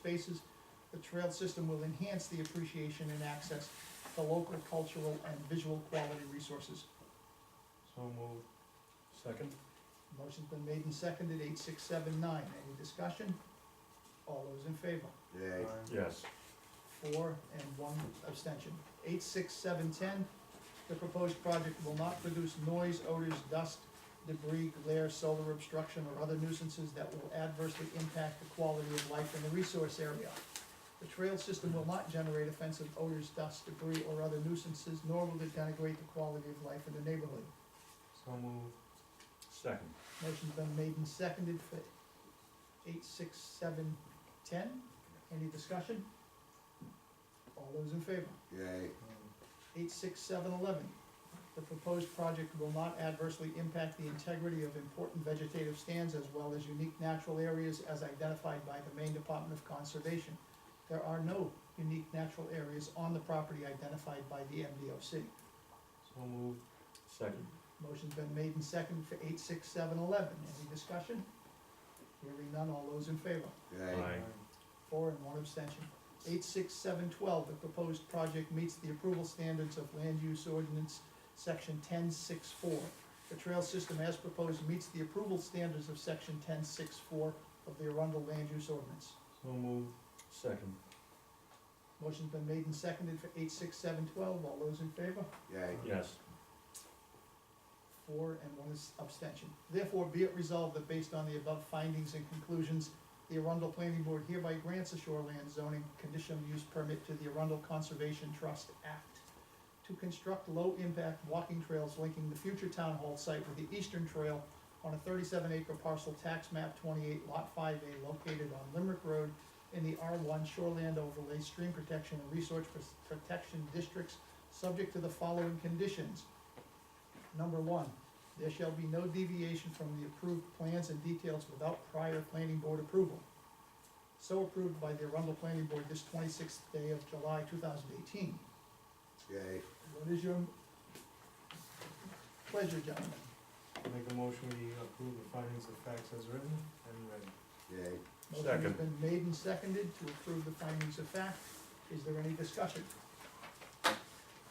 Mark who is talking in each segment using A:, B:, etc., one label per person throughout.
A: spaces, the trail system will enhance the appreciation and access to local cultural and visual quality resources.
B: So moved. Second?
A: Motion's been made and seconded, eight, six, seven, nine, any discussion? All those in favor?
C: Yay.
B: Yes.
A: four, and one abstention. Eight, six, seven, ten, the proposed project will not produce noise, odors, dust, debris, glare, solar obstruction, or other nuisances that will adversely impact the quality of life in the resource area. The trail system will not generate offensive odors, dust, debris, or other nuisances, nor will it denigrate the quality of life in the neighborhood.
B: So moved. Second?
A: Motion's been made and seconded for eight, six, seven, ten. Any discussion? All those in favor?
C: Yay.
A: eight, six, seven, eleven. The proposed project will not adversely impact the integrity of important vegetative stands as well as unique natural areas as identified by the Maine Department of Conservation. There are no unique natural areas on the property identified by the MDOC.
B: So moved. Second?
A: Motion's been made and seconded for eight, six, seven, eleven. Any discussion? Hearing none, all those in favor?
C: Yay.
A: Four and one abstention. Eight, six, seven, twelve, the proposed project meets the approval standards of land use ordinance, section ten, six, four. The trail system as proposed meets the approval standards of section ten, six, four of the Arundel land use ordinance.
B: So moved. Second?
A: Motion's been made and seconded for eight, six, seven, twelve. All those in favor?
C: Yay.
B: Yes.
A: four and one is abstention. Therefore, be it resolved that based on the above findings and conclusions, the Arundel Planning Board hereby grants a shoreland zoning conditional use permit to the Arundel Conservation Trust Act to construct low-impact walking trails linking the future town hall site with the eastern trail on a thirty-seven acre parcel tax map twenty-eight lot five A located on Limerick Road in the R one Shoreland Overlay Stream Protection and Resource Protection Districts, subject to the following conditions. Number one, there shall be no deviation from the approved plans and details without prior planning board approval. So approved by the Arundel Planning Board this twenty-sixth day of July, two thousand eighteen.
C: Yay.
A: What is your pleasure, gentlemen?
D: Make a motion, we approve the findings of facts as written and read.
C: Yay.
A: Motion has
B: Second.
A: been made and seconded to approve the findings of fact. Is there any discussion?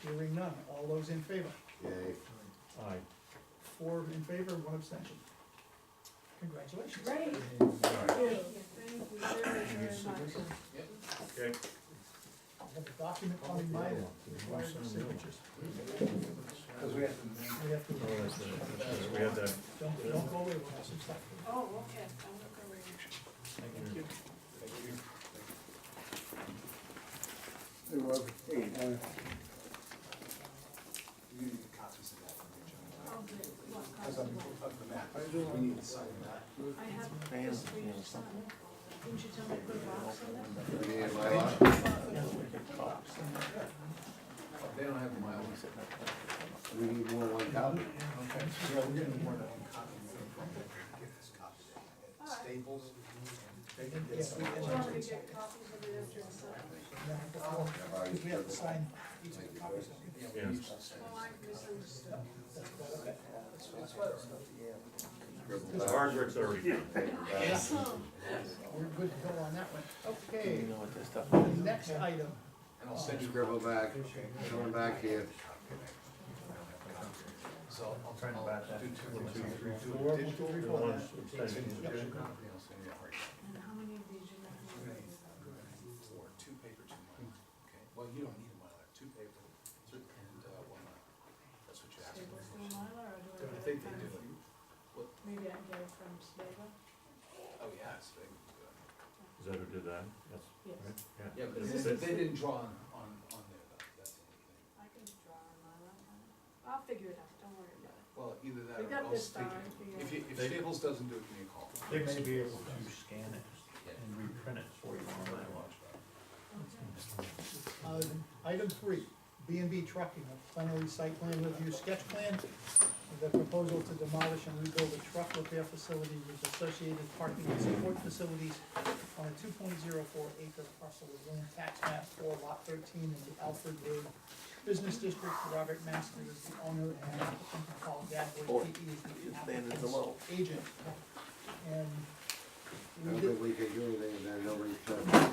A: Hearing none. All those in favor?
C: Yay.
B: Aye.
A: Four in favor, one abstention. Congratulations.
E: Great.
B: Alright.
E: Thank you very, very much.
B: Okay.
A: I have a document coming by that requires our signatures.
D: Cause we have to.
A: We have to,
B: Oh, that's it. We had that.
A: don't, don't go away, we'll have some stuff.
E: Oh, okay, I'm looking over here.
B: Thank you.
F: Hey, Rob. Hey, uh,
D: You need copies of that from each other.
E: Oh, good. What
D: Cause
E: cost?
D: of, of the map,
F: I do
D: we
F: want-
D: need to sign that.
E: I have this for your son. Didn't you tell me to put a box in it?
C: You need my lot?
D: They don't have my own.
C: We need more than one copy?
D: Okay. Yeah, we're getting more than one copy. Get this copy. At
E: Alright.
D: Staples. They did
A: Yes,
D: this.
A: we
E: Do you want me to get copies of it after it's done?
C: I've already
A: We have to
C: done
A: sign,
B: Yes.
E: Oh, I misunderstood.
C: the scribble
B: The
C: back.
B: hard work's already done.
E: So,
A: we're good to go on that one. Okay,
F: you know what this stuff
A: next item,
D: And I'll send you.
C: Scribble back, coming back here.
D: So I'll try to back that. Do two, two, three, two.
A: Uh, four, we'll do
B: The
A: report
B: ones
A: that.
B: abstaining.
D: Digital copy, I'll send you.
E: and how many of these you have?
D: Or two paper, two Mylar. Okay, well, you don't need a Mylar, two paper and uh, one Mylar. That's what you asked
E: Staples
D: for.
E: do a Mylar or do I
D: I
E: get
D: think
E: it
D: they do.
E: from? Maybe I get it from Stable?
D: Oh, yeah, it's big.
B: Is that who did that? Yes.
E: Yes,
B: Right?
D: Yeah, but
B: Is
D: they,
B: it-
D: they didn't draw on, on, on there though, that's the only thing.
E: I can draw a Mylar. I'll figure it out, don't worry about it.
D: Well, either that
E: We
D: or
E: got
D: I'll
E: this
D: speak.
E: far,
D: it.
E: we
D: If
E: got-
D: you, if Staples doesn't do it, give me a call.
G: They may be able to scan it and reprint it for you on my watch.
E: Okay.
A: Uh, Item three, B and B Trucking, a plenary site plan review sketch plan. The proposal to demolish and rebuild a truck repair facility with associated parking and support facilities on a two point zero four acre parcel of land tax map four lot thirteen in the Alfred Road Business District. Robert Master is the owner and applicant Paul Gadboy, he is
F: Standards
A: the
F: are
A: applicant's
F: low.
A: agent. And
C: I
A: we
C: don't
A: did,
C: think we can do anything, then nobody's trying to.